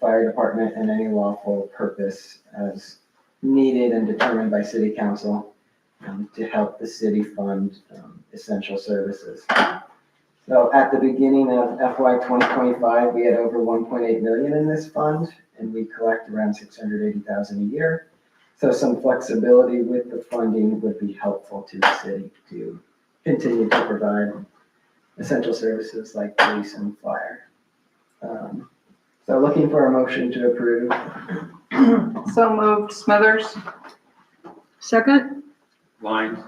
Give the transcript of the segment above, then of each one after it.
fire department in any lawful purpose as needed and determined by city council um, to help the city fund um, essential services. So at the beginning of FY twenty twenty-five, we had over one point eight million in this fund, and we collect around six hundred eighty thousand a year. So some flexibility with the funding would be helpful to the city to continue to provide essential services like police and fire. Um, So looking for a motion to approve. So moved. Smithers? Second, Lines,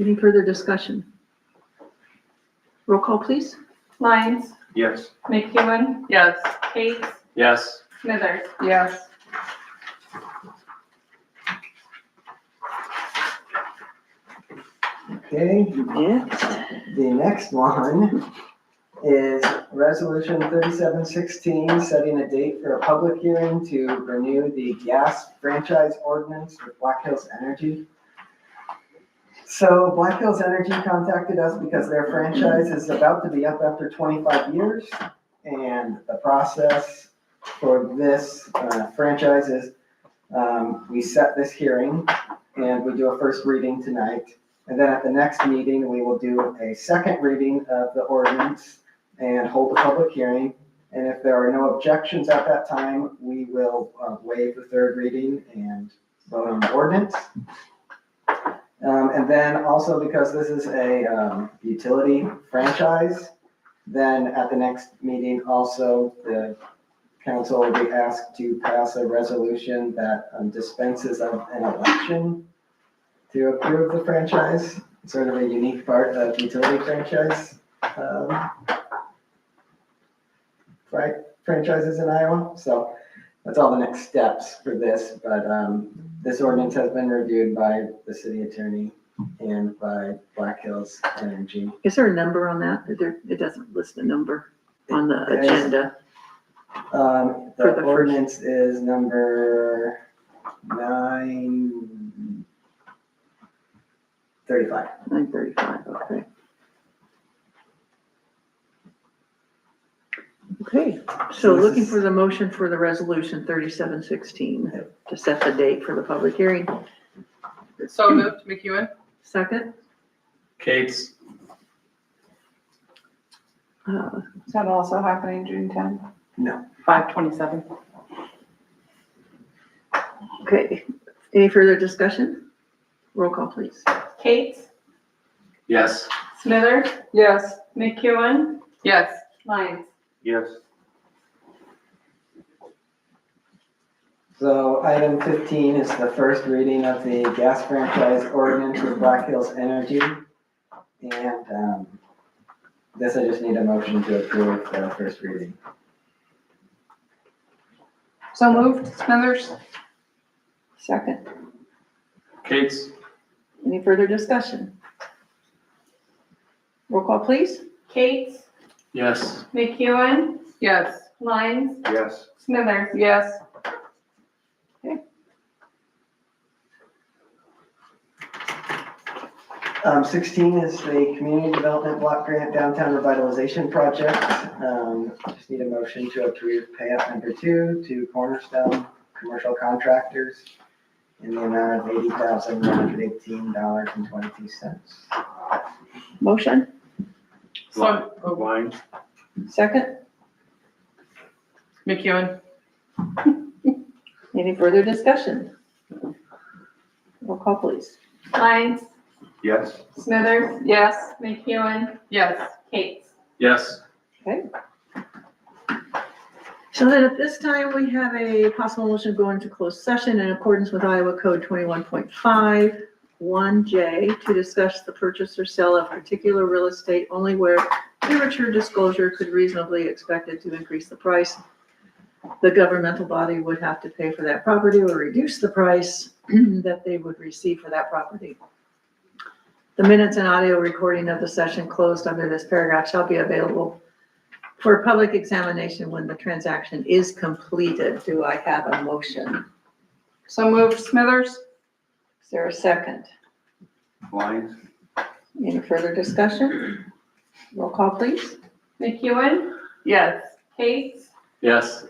any further discussion? Roll call, please. Lyons, yes. McEwen, Yes. Kate, Yes. Smithers. Yes. Okay, the next one is Resolution thirty-seven sixteen, setting a date for a public hearing to renew the gas franchise ordinance with Black Hills Energy. So Black Hills Energy contacted us because their franchise is about to be up after twenty-five years. And the process for this uh, franchise is, um, we set this hearing and we do a first reading tonight. And then at the next meeting, we will do a second reading of the ordinance and hold a public hearing. And if there are no objections at that time, we will uh, waive the third reading and vote on the ordinance. Um, and then also because this is a, um, utility franchise, then at the next meeting also, the council will be asked to pass a resolution that um, dispenses of an election to approve the franchise, sort of a unique part of utility franchise. um, fri- Franchises in Iowa, so that's all the next steps for this, but um, this ordinance has been reviewed by the city attorney and by Black Hills Energy. Is there a number on that? Is There, it doesn't list a number on the There is- agenda. Um, For the the first- ordinance is number nine thirty-five. Nine thirty-five, okay. Okay, so So this looking is- for the motion for the resolution thirty-seven sixteen to set the date for the public hearing. So moved. McEwen? Second, Kate's, uh, Is that also happening June tenth? No. Five twenty-seven. okay, any further discussion? Roll call, please. Kate, yes. Smithers, Yes. McEwen, Yes. Lyons. Yes. So item fifteen is the first reading of the gas franchise ordinance with Black Hills Energy. And, um, this I just need a motion to approve the first reading. So moved. Smithers? Second, Kate's, any further discussion? Roll call, please. Kate, yes. McEwen, Yes. Lyons, Yes. Smithers. Yes. Um, sixteen is the Community Development Block Grant Downtown Revitalization Project. Um, just need a motion to approve payout number two to Cornerstone Commercial Contractors in the amount of eighty thousand, one hundred eighteen dollars and twenty-two cents. Motion, So, oh, Lines, second, McEwen? any further discussion? Roll call, please. Lyons, yes. Smithers, Yes. McEwen, Yes. Kate. Yes. So then at this time, we have a possible motion to go into closed session in accordance with Iowa Code twenty-one point five, one J, to discuss the purchase or sale of particular real estate only where premature disclosure could reasonably expected to increase the price. The governmental body would have to pay for that property or reduce the price that they would receive for that property. The minutes and audio recording of the session closed under this paragraph shall be available for public examination when the transaction is completed, do I have a motion? So moved. Smithers? Is there a second? Lines, Any further discussion? Roll call, please. McEwen, Yes. Kate, yes.